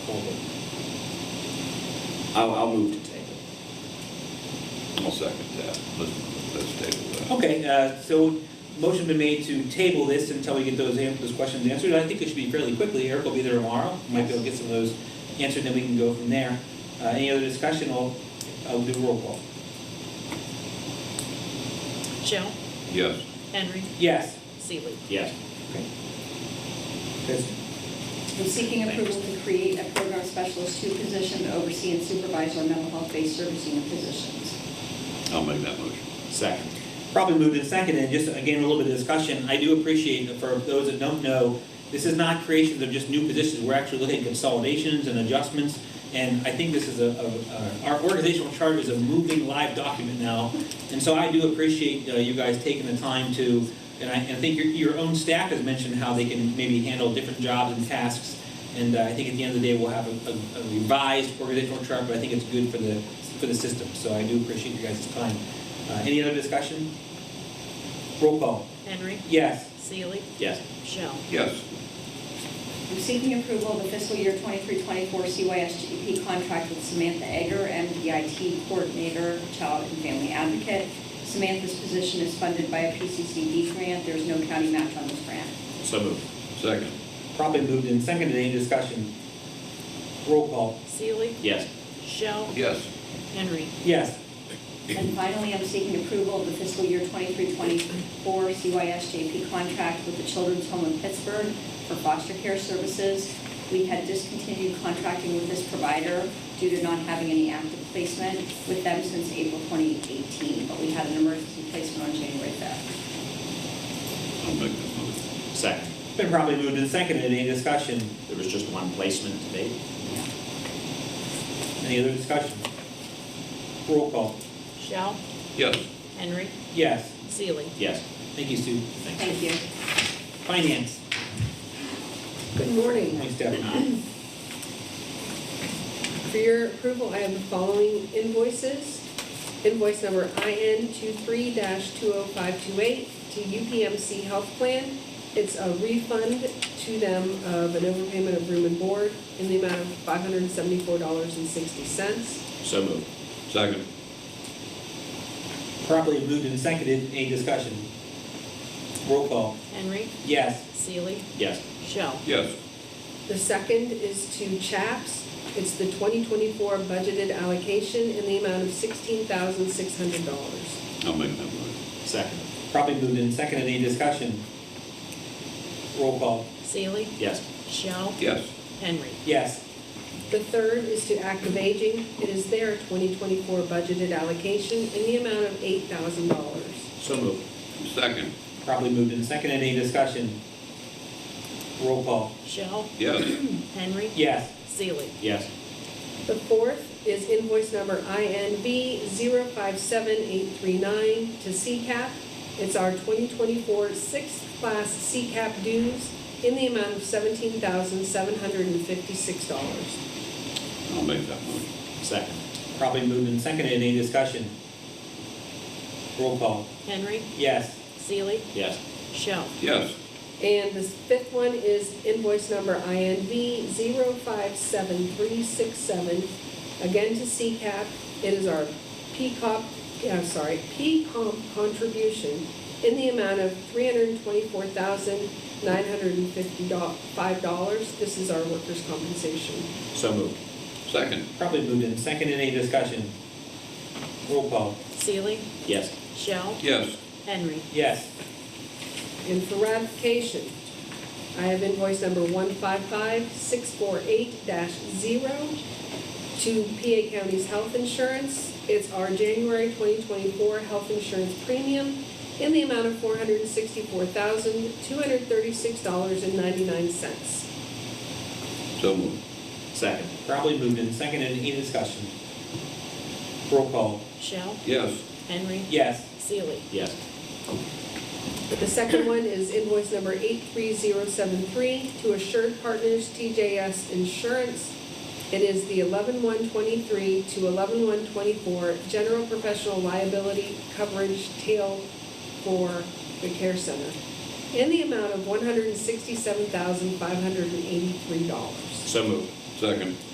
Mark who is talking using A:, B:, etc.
A: Hold it. I'll, I'll move to table.
B: I'll second that. Let's, let's table that.
C: Okay, uh, so motion been made to table this until we get those, an- those questions answered. I think it should be fairly quickly. Eric will be there tomorrow. Might be able to get some of those answered, then we can go from there. Uh, Any other discussion? I'll, I'll do roll call.
D: Joe,
B: Yes,
D: Henry,
C: Yes.
D: Seeley.
A: Yes.
C: Kristen?
E: I'm seeking approval to create a program specialist two position to oversee and supervise our mental health-based servicing of physicians.
B: I'll make that motion.
A: Second.
C: Probably moved in second, and just again, a little bit of discussion, I do appreciate, that for those that don't know, this is not creations of just new positions, we're actually looking at consolidations and adjustments, and I think this is a, a- a- our organizational chart is a moving live document now, and so I do appreciate uh, you guys taking the time to, and I, and I think your, your own staff has mentioned how they can maybe handle different jobs and tasks, and uh, I think at the end of the day, we'll have a- a a revised organizational chart, but I think it's good for the, for the system, so I do appreciate you guys' time. Uh, Any other discussion? Roll call.
D: Henry,
C: Yes.
D: Seeley,
A: Yes.
D: Joe.
B: Yes,
E: I'm seeking approval of the fiscal year 23-24 CYSGP E contract with Samantha Egger, MDIT Coordinator, Child and Family Advocate. Samantha's position is funded by a PCCD grant. There's no county match on this grant.
A: So moved.
B: second.
C: Probably moved in second, any discussion? Roll call.
D: Seeley,
A: Yes.
D: Joe,
B: Yes,
D: Henry,
C: Yes.
E: And finally, I'm seeking approval of the fiscal year 23-24 CYSJP contract with the Children's Home in Pittsburgh for foster care services. We had discontinued contracting with this provider due to not having any active placement with them since April 2018, but we had an emergency placement on January 5th.
B: I'll make that motion.
A: Second.
C: Been probably moved in second, any discussion?
A: There was just one placement to date.
C: Any other discussion? Roll call.
D: Joe,
B: Yes,
D: Henry,
C: Yes.
D: Seeley.
A: Yes.
C: Thank you, Sue.
E: Thank you.
C: Finance.
F: Good morning.
C: Thanks, Stephanie.
F: For your approval, I have the following invoices. Invoice number IN 23-20528 to UPMC Health Plan. It's a refund to them of an overpayment of room and board in the amount of $574.60.
A: So moved.
B: second.
C: Properly moved and seconded, any discussion? Roll call.
D: Henry,
C: Yes.
D: Seeley,
A: Yes.
D: Joe.
B: Yes,
F: The second is to CHAPS. It's the 2024 budgeted allocation in the amount of $16,600.
B: I'll make that motion.
A: Second.
C: Properly moved in second, any discussion? Roll call.
D: Seeley,
A: Yes.
D: Joe,
B: Yes,
D: Henry,
C: Yes.
F: The third is to active aging. It is their 2024 budgeted allocation in the amount of $8,000.
A: So moved.
B: second.
C: Properly moved in second, any discussion? Roll call.
D: Joe,
B: Yes,
D: Henry,
C: Yes.
D: Seeley.
A: Yes.
F: The fourth is invoice number INB 057839 to CCAP. It's our 2024 sixth class CCAP dues in the amount of $17,756.
B: I'll make that motion.
A: Second.
C: Probably moved and seconded. Any discussion? Roll call.
D: Henry,
C: Yes.
D: Seeley,
A: Yes.
D: Joe.
B: Yes,
F: And the fifth one is invoice number INV 057367, again to CCAP. It is our PCOP, I'm uh, sorry, PCOM contribution in the amount of $324,955. This is our workers' compensation.
A: So moved.
B: second.
C: Probably moved and seconded. Any discussion? Roll call.
D: Seeley,
A: Yes.
D: Joe,
B: Yes,
D: Henry,
C: Yes.
F: And for ratification, I have invoice number 155648-0 to PA County's Health Insurance. It's our January 2024 health insurance premium in the amount of $464,236.99.
B: so moved.
A: Second.
C: Probably moved and seconded. Any discussion? Roll call.
D: Joe,
B: Yes,
D: Henry,
C: Yes.
D: Seeley.
A: Yes.
F: The second one is invoice number 83073 to Assured Partners TJS Insurance. It is the 11123 to 11124 General Professional Liability Coverage Tail for the Care Center in the amount of $167,583.
A: So moved.
B: Second.